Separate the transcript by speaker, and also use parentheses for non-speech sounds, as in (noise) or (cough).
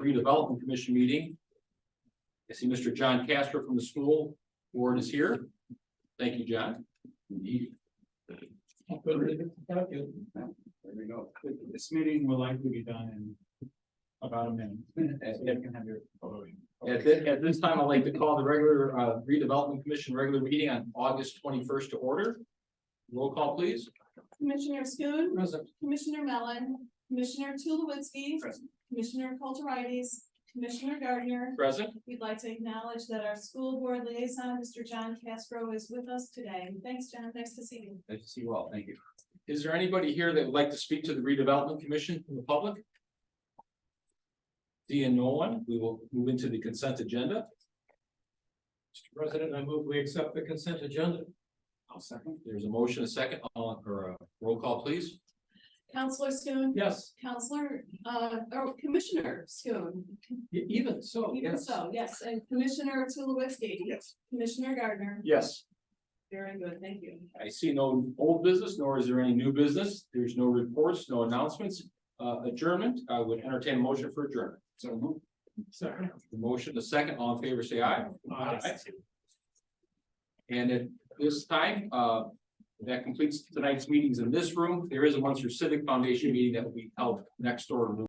Speaker 1: Redevelopment Commission meeting. I see Mr. John Castor from the school board is here. Thank you, John.
Speaker 2: There we go. This meeting will likely be done in about
Speaker 1: (laughs)
Speaker 2: a minute. So you can have your voting.
Speaker 1: At this, at this time, I'd like to call the regular uh, redevelopment commission regular meeting on August twenty-first to order. Roll call, please.
Speaker 3: Commissioner Schoon, Commissioner Mellon, Commissioner Tulowitzki.
Speaker 1: Present.
Speaker 3: Commissioner Kulturitis, Commissioner Gardner.
Speaker 1: Present.
Speaker 3: We'd like to acknowledge that our school board liaison, Mr. John Castro, is with us today. Thanks, John. Nice to see you.
Speaker 1: Nice to see you all. Thank you. Is there anybody here that would like to speak to the redevelopment commission from the public? Seeing no one, we will move into the consent agenda.
Speaker 4: Mr. President, I move we accept the consent agenda.
Speaker 1: I'll second. There's a motion, a second, all, or a roll call, please.
Speaker 3: Counselor Schoon.
Speaker 4: Yes,
Speaker 3: Counselor, uh, or Commissioner Schoon.
Speaker 4: e- even
Speaker 1: Oh,
Speaker 4: so,
Speaker 3: Even
Speaker 4: yes.
Speaker 3: so, yes, and Commissioner Tulowitzki. Yes. Commissioner Gardner.
Speaker 1: Yes.
Speaker 3: Very good. Thank you.
Speaker 1: I see no old business, nor is there any new business. There's no reports, no announcements. Uh, adjournment, I would entertain a motion for adjournment. So move.
Speaker 4: Second.
Speaker 1: The motion, the second, all in favor, say aye. And at this time, uh, that completes tonight's meetings in this room. There is a Munster Civic Foundation meeting that will be held next door in room